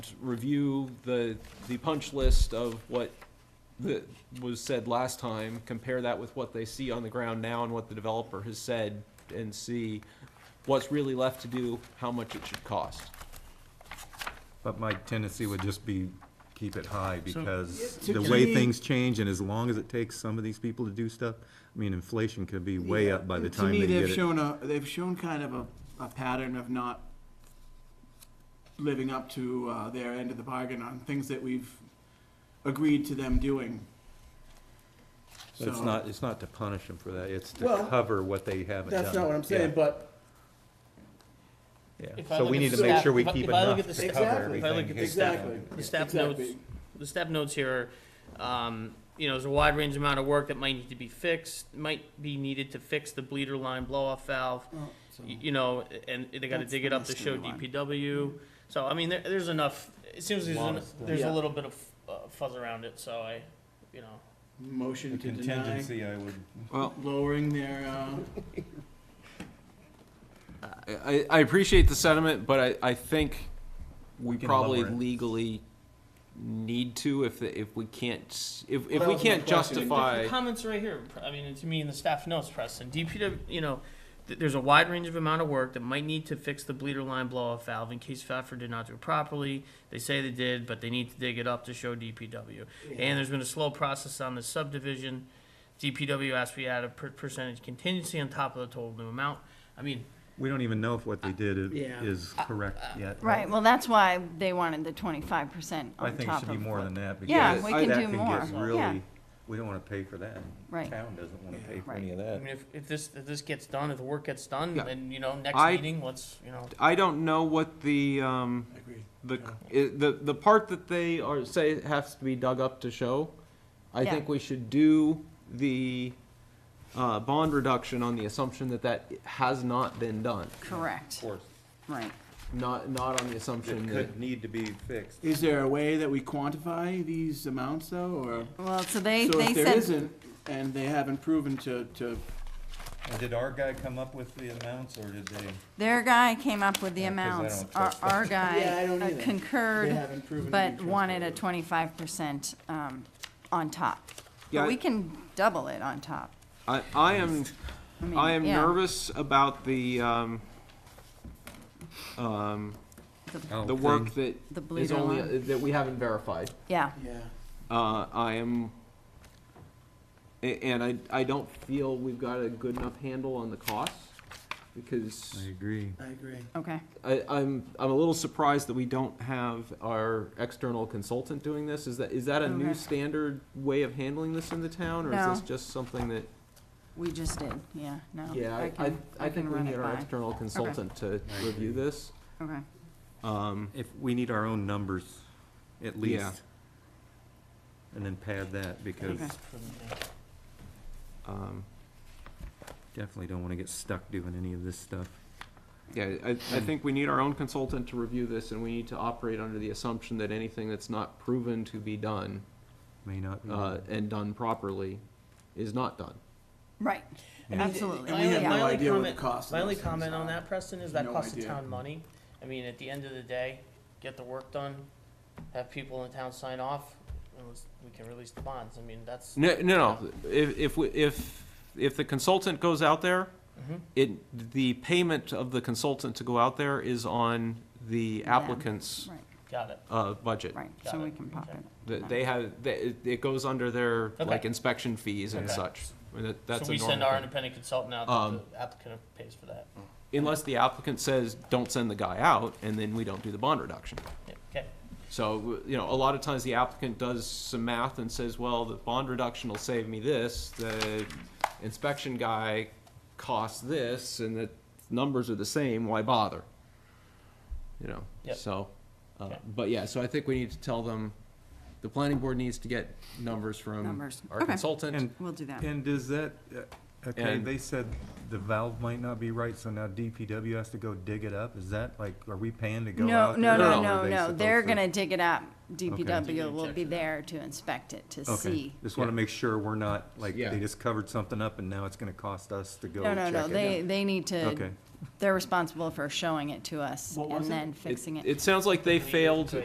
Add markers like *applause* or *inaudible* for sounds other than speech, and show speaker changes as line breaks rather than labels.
review the, the punch list of what the, was said last time, compare that with what they see on the ground now and what the developer has said, and see what's really left to do, how much it should cost.
But my tendency would just be keep it high because
to-
the
to
way
me-
things change and as long as it takes some of these people to do stuff, I mean, inflation could be way up by the time
To
they
me, they've
get it.
shown a, they've shown kind of a, a pattern of not living up to uh, their end of the bargain on things that we've agreed to them doing.
But It's
So-
not, it's not to punish them for that, it's to
Well,
cover what they haven't done.
That's not what I'm saying, but
Yeah, yeah.
If I
So
look
we
at
need
the
to make
staff-
sure we
if I-
keep
if I look
enough
at the
to
staff-
cover
Exactly.
everything.
If I look at the
It's
staff-
not-
exactly,
The staff
exactly.
notes. The staff notes here, um, you know, there's a wide range amount of work that might need to be fixed, might be needed to fix the bleeder line blow-off valve,
Oh, so-
y- you know, and they gotta
That's
dig
the
it up to
missing
show
line.
DPW. So, I mean, there, there's enough, it seems there's,
Lot
an-
of stuff.
there's
Yeah.
a little bit of uh, fuzz around it, so I, you know.
Motion to deny,
Contingency, I would,
Well,
lowering their, uh,
I, I appreciate the sentiment, but I, I think we
We can
probably
lower it.
legally need to if, the- if we can't, s- if, if
That
we
was my
can't
question.
justify.
The comments right here, I mean, to me in the staff notes, Preston, DPW, you know, th- there's a wide range of amount of work that might need to fix the bleeder line blow-off valve in case Pfeffer did not do it properly. They say they did, but they need to dig it up to show DPW. And there's been a slow process on this subdivision. DPW asked we add a per- percentage contingency on top of the total new amount. I mean,
we don't even know if what they did i-
Yeah. uh,
is correct yet.
Right, well, that's why they wanted the twenty-five percent
I
on
think it
top
should be
of
more
what.
than that
Yeah,
because
we
that
can do
can
more,
get
yeah,
really, we don't wanna pay for that.
right.
Town doesn't wanna pay for
Right.
any of
I
that.
mean, if, if this, if this gets done, if the work gets done,
Yeah.
then, you know, next
I-
meeting, let's, you know.
I don't know what the, um,
agreed.
The, i- the, the part that they are, say has to be dug up to show, I
Yeah.
think we should do the, uh, bond reduction on the assumption that that has not been done,
Correct,
course.
right.
not, not on the assumption
It
that.
could need to be fixed.
Is there a way that we quantify these amounts though, or?
Well, so they,
So
they
if there
said,
isn't, and they haven't proven to, to,
And did our guy come up with the amounts, or did they?
their guy came up with the
Yeah, 'cause I
amounts,
don't
our,
trust
*laughs*
our
Yeah, I
guy
don't
uh,
either. they
concurred,
haven't proven to be
but wanted a
trustworthy.
twenty-five percent, um, on top.
Yeah,
But we can double it on top.
I, I am,
mean,
I am
yeah.
nervous about the, um, um, the work that
The
is
bleeder
only,
line,
that we haven't verified.
yeah,
Yeah.
Uh, I am, a- and I, I don't feel we've got a good enough handle on the costs, because
agree.
I agree.
okay,
I, I'm, I'm a little surprised that we don't have our external consultant doing this. Is that, is that a new
Okay.
standard way of handling this in the town, or is this
No.
just something that?
we just did, yeah, no.
Yeah, I, I,
can-
I
can
think we
run
need
it
our
by.
external consultant to
I
review this.
Okay,
Um,
If, we need our own numbers, at
Yeah.
least. And then pad that, because
Okay.
um,
definitely don't wanna get stuck doing any of this stuff.
yeah, I, I think we need our own consultant to review this, and we need to operate under the assumption that anything that's not proven to be done,
May not be.
uh, and done properly, is not done.
right,
Yeah.
absolutely,
And we have
yeah.
no
My only
idea what the
comment-
cost of
My only
those things
comment
are.
on that, Preston, is that
uh, No
costs the
idea.
town money. I mean, at the end of the day, get the work done, have people in town sign off, and let's- we can release the bonds. I mean, that's,
No, no, no. If, if, we- if, if the consultant goes out there,
Mhm.
it, the payment of the consultant to go out there is on the
Them.
applicant's,
Right,
got it.
uh, budget.
right,
Got
so
it,
we can pop
okay.
it.
That they have, that, it- it goes under their, like,
Okay.
inspection fees and
Okay.
such. I mean, that- That's
So
a
we send
normal
our
thing.
independent consultant out,
Um, mm.
that the applicant pays for that.
Unless the applicant says, don't send the guy out, and then we don't do the bond reduction.
Yeah, Okay,
So, you know, a lot of times the applicant does some math and says, well, the bond reduction will save me this, the inspection guy costs this, and the numbers are the same, why bother? You know,
Yep.
so, uh,
Okay.
but yeah, so I think we need to tell them, the planning board needs to get numbers from
Numbers.
our
Okay.
consultant.
And,
We'll do that.
and does that, uh, okay,
And-
they said the valve might not be right, so now DPW has to go dig it up? Is that like, are we paying to go
No,
out there?
no,
No,
no,
or are
no,
they
no,
supposed
they're
to-
gonna dig it up.
Do
DPW
the
will be
injection.
there to inspect it, to
Okay,
see.
just wanna
Yeah.
make sure we're not, like,
Yeah.
they just covered something up and now it's gonna cost us to go
No,
check
no,
it.
no, they, they need
Okay.
to, they're responsible for showing it to us
What was
and
it?
then fixing it.
It sounds like they failed